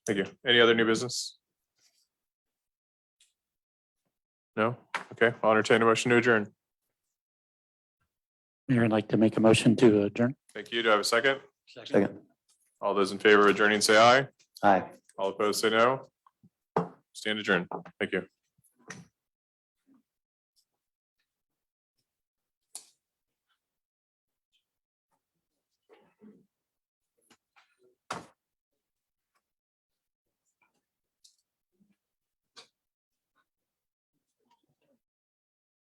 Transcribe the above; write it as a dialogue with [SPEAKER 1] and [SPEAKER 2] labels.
[SPEAKER 1] Thank you. Any other new business? No? Okay, I'll entertain a motion to adjourn.
[SPEAKER 2] Mayor, I'd like to make a motion to adjourn.
[SPEAKER 1] Thank you. Do I have a second?
[SPEAKER 3] Second.
[SPEAKER 1] All those in favor of adjourning, say aye.
[SPEAKER 3] Aye.
[SPEAKER 1] All opposed, say no. Stand adjourned. Thank you.